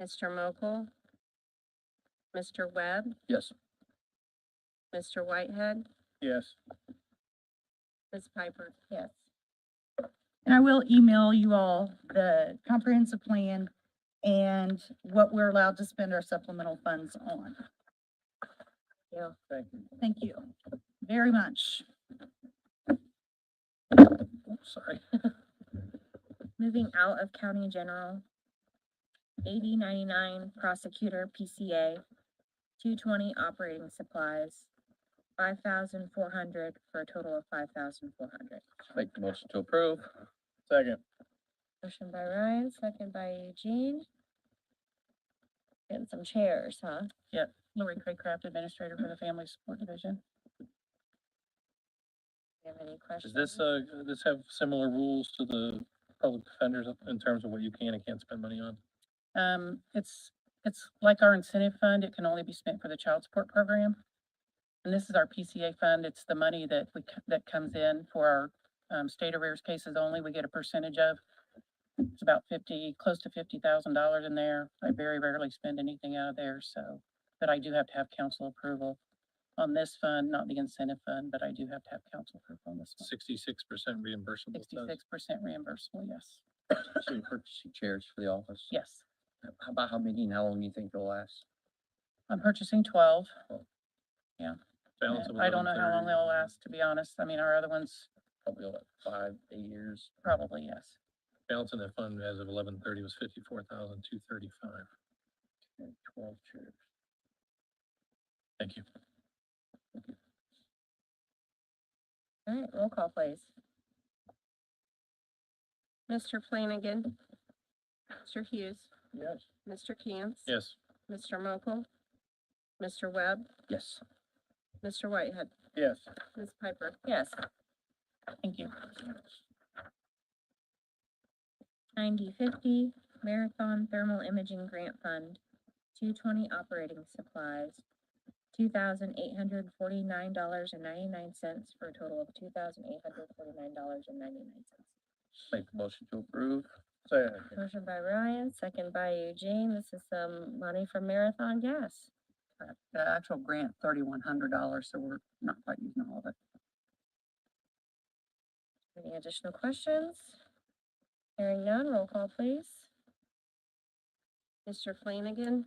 Mr. Mokel? Mr. Webb? Yes. Mr. Whitehead? Yes. Ms. Piper? Yes. And I will email you all the comprehensive plan and what we're allowed to spend our supplemental funds on. Yeah. Thank you. Thank you very much. Oops, Sorry. Moving out of county general. Eighty ninety-nine prosecutor PCA. Two twenty operating supplies. Five thousand four hundred for a total of five thousand four hundred. Make the motion to approve. Second. Motion by Ryan, second by Eugene. Getting some chairs, huh? Lori Craycraft, Administrator for the Family Support Division. You have any questions? Does this, uh, does this have similar rules to the public defenders in terms of what you can and can't spend money on? Um, it's, it's like our incentive fund, it can only be spent for the child support program. And this is our PCA fund, it's the money that we, c- that comes in for our, um, state arrears cases only, we get a percentage of. It's about fifty, close to fifty thousand dollars in there, I very rarely spend anything out of there, so, but I do have to have council approval on this fund, not the incentive fund, but I do have to have council approval on this one. Sixty-six percent reimbursable. it says. Sixty-six percent reimbursable, yes, So you're purchasing chairs for the office? yes. How about how many and how long you think they'll last? I'm purchasing twelve. Balance of I don't know how 1130. long they'll last, to be honest. I mean, our other ones, Probably like five, eight years. probably, yes. Balance in that fund as of eleven thirty was fifty-four thousand two thirty-five. and Twelve chairs. Thank you. All right, Mm, roll call please. Mr. Flanagan. Mr. Hughes. Yes. Mr. Cantz. Yes. Mr. Mokel. Mr. Webb. Yes. Mr. Whitehead. Yes. Ms. Piper. Yes. Thank you. Ninety fifty Marathon Thermal Imaging Grant Fund. Two twenty operating supplies. Two thousand eight hundred forty-nine dollars and ninety-nine cents for a total of two thousand eight hundred forty-nine dollars and ninety-nine cents. Make the motion to approve. Second. Motion by Ryan, second by Eugene. This is some money from Marathon Gas. The actual grant, thirty-one hundred dollars, so we're not quite using all of it. Any additional questions? Hearing none, roll call please. Mr. Flanagan.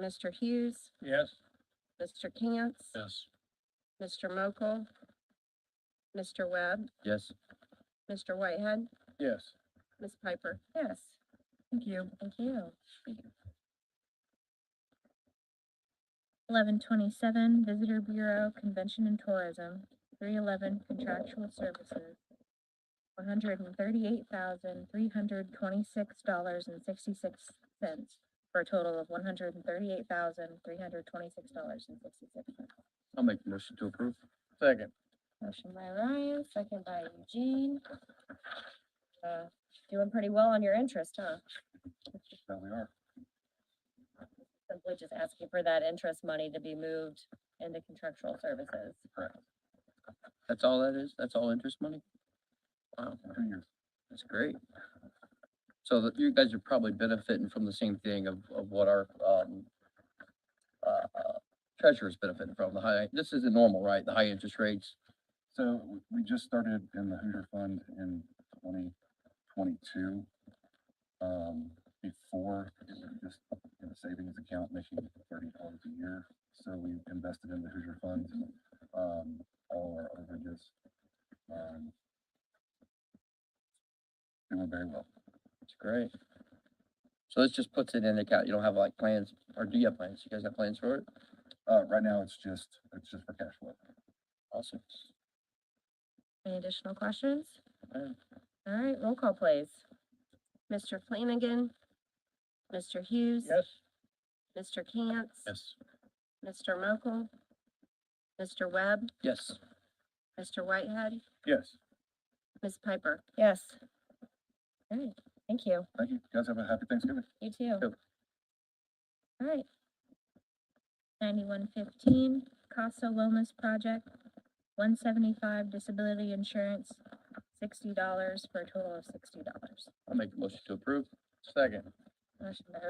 Mr. Hughes, Yes. Mr. Cantz, Yes. Mr. Mokel, Mr. Webb, Yes. Mr. Whitehead, Yes. Ms. Piper. Yes. Thank you. Thank you. Eleven twenty-seven Visitor Bureau Convention and Tourism, three eleven contractual services. One hundred and thirty-eight thousand, three hundred twenty-six dollars and sixty-six cents, for a total of one hundred and thirty-eight thousand, three hundred twenty-six dollars and sixty-six cents. I'll make the motion to approve. Second. Motion by Ryan, second by Eugene. Uh, Doing pretty well on your interest, huh? Now we are. Simply just asking for that interest money to be moved into contractual services. That's all that is? That's all interest money? Wow, that's great. So that you guys are probably benefiting from the same thing of, of what our, um, uh, uh, treasurer's benefiting from, the high, this isn't normal, right? The high interest rates. So w- we just started in the Hoosier Fund in twenty twenty-two. Um, before, it was just in a savings account making thirty dollars a year. So we invested in the Hoosier Fund, um, all our overages. um, Doing very well. It's great. So this just puts it in the account. You don't have like plans, or do you have plans? You guys have plans for it? Uh, right now, it's just, it's just for cash flow. Awesome. Any additional questions? Uh. All right, roll call please. Mr. Flanagan. Mr. Hughes. Mr. Cantz. Yes. Mr. Mokel. Mr. Webb. Yes. Mr. Whitehead. Yes. Ms. Piper. Yes. All right, thank you. Thank you. You guys have a happy Thanksgiving. You too. Yep. Alright. Ninety-one fifteen, Casa Lomas Project, one seventy-five disability insurance, sixty dollars for a total of sixty dollars. I'll make the motion to approve. Second. Motion by